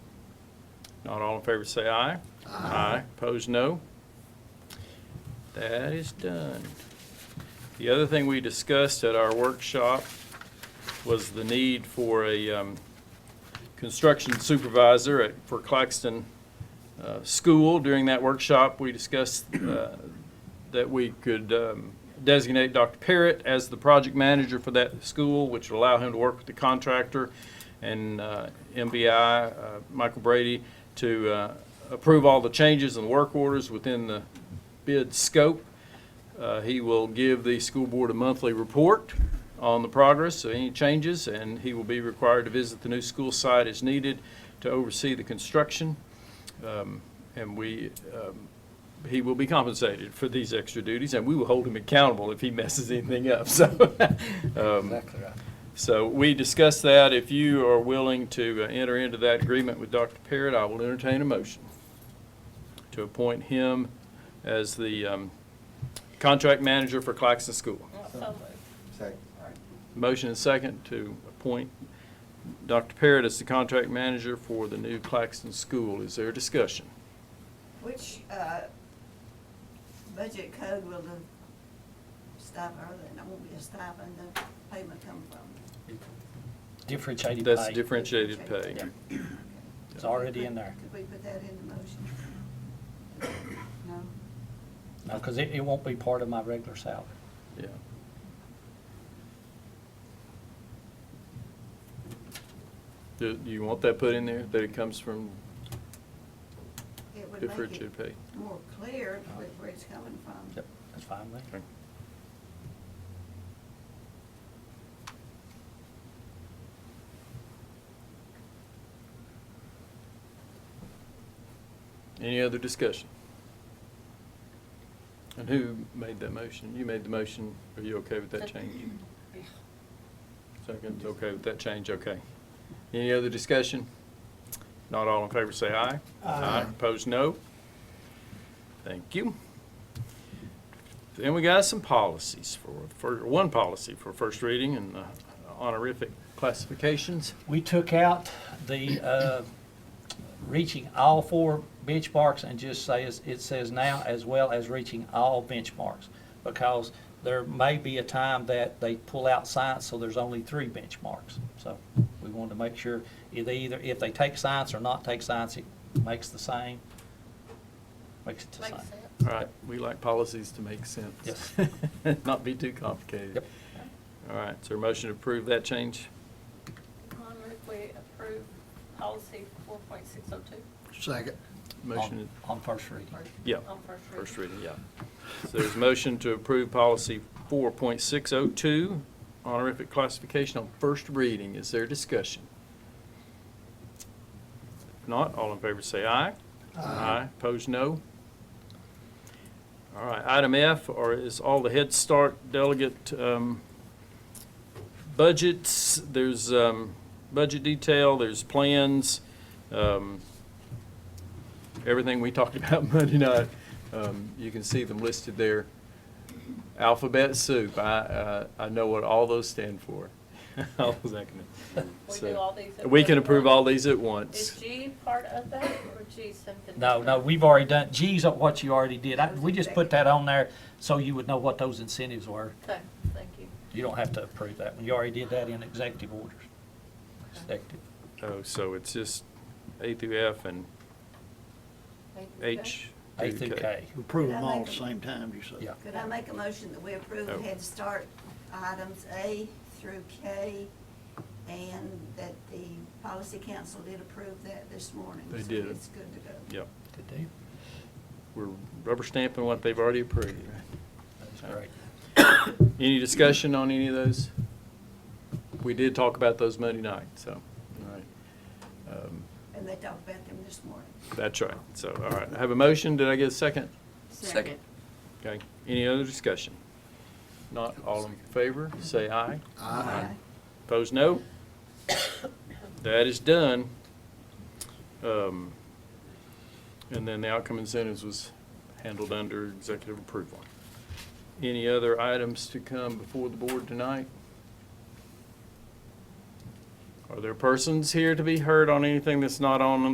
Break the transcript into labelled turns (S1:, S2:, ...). S1: Not all in favor, say aye. Aye. Opposed, no. That is done. The other thing we discussed at our workshop was the need for a um, construction supervisor at, for Claxton uh, School. During that workshop, we discussed uh, that we could um, designate Dr. Parrott as the project manager for that school, which would allow him to work with the contractor and uh, MBI, uh, Michael Brady, to uh, approve all the changes and work orders within the bid scope. Uh, He will give the school board a monthly report on the progress of any changes, and he will be required to visit the new school site as needed to oversee the construction. Um, And we, um, he will be compensated for these extra duties, and we will hold him accountable if he messes anything up, so. um,
S2: Exactly right.
S1: So we discussed that. If you are willing to uh, enter into that agreement with Dr. Parrott, I will entertain a motion to appoint him as the um, contract manager for Claxton School.
S3: So
S2: Second.
S1: Motion and second to appoint Dr. Parrott as the contract manager for the new Claxton School. Is there discussion?
S3: Which, uh, budget code will the stipend, or that won't be a stipend, the payment come from?
S2: Differentiated
S1: That's
S2: pay.
S1: differentiated pay.
S2: It's already in there.
S3: Could we put that in the motion? No?
S2: No, because it, it won't be part of my regular salary.
S1: Yeah. Do do you want that put in there, that it comes from
S3: It would make
S1: differentiated
S3: it
S1: pay?
S3: more clear where where it's coming from.
S2: Yep, that's fine with me.
S1: Okay. Any other discussion? And who made that motion? You made the motion. Are you okay with that change? Second's okay with that change, okay. Any other discussion? Not all in favor, say aye. Aye. Opposed, no. Thank you. Then we got some policies for, for, one policy for first reading and uh, honorific classifications.
S2: We took out the, uh, reaching all four benchmarks and just says, it says now as well as reaching all benchmarks. Because there may be a time that they pull out science, so there's only three benchmarks. So we wanted to make sure if they either, if they take science or not take science, it makes the same. Makes it the same.
S3: Makes sense.
S1: All right, we like policies to make sense. Not be too complicated.
S2: Yep.
S1: All right, so a motion to approve that change?
S4: I move we approve policy four point six oh two
S5: Second.
S1: Motion,
S2: On on first reading.
S1: yeah.
S4: on first reading.
S1: First reading, yeah. So there's a motion to approve policy 4.602, honorific classification on first reading. Is there discussion? If not, all in favor say aye. Aye. Opposed, no. All right, item F, or is all the Head Start delegate um, budgets. There's um, budget detail, there's plans, um, everything we talked about Monday night. Um, You can see them listed there. Alphabet soup, I, uh, I know what all those stand for. All those acronyms.
S4: We
S1: So,
S4: do all these at
S1: We can
S4: once.
S1: approve all these at
S4: Is
S1: once.
S4: G part of that or G something?
S2: No, no,
S4: different?
S2: we've already done, G's are what you already did. I- We just put that on there so you would know what those incentives were.
S4: Okay, thank you.
S2: You don't have to approve that one. You already did that in executive orders. Executive.
S1: Oh, so it's just A through F and
S4: Thank you, okay.
S1: H.
S2: A through K.
S5: Approve
S3: Did I
S5: them all
S3: make
S5: at the
S3: it?
S5: same time, you said.
S2: Yeah.
S3: Could I make a motion that we approve
S1: Oh.
S3: Head Start items A through K, and that the policy council did approve that this morning?
S1: They
S3: so
S1: did.
S3: It's good to go.
S1: Yep,
S2: Good deal.
S1: we're rubber stamping what they've already approved.
S2: That's great.
S1: Any discussion on any of those? We did talk about those Monday night, so, all right. Um,
S3: And they talked about them this morning.
S1: That's right, so, all right, I have a motion, did I get a second?
S6: Second.
S1: Okay, any other discussion? Not all in favor, say aye.
S3: Aye.
S1: Opposed, no. That is done. Um, And then the outcome incentives was handled under executive approval. Any other items to come before the board tonight? Are there persons here to be heard on anything that's not on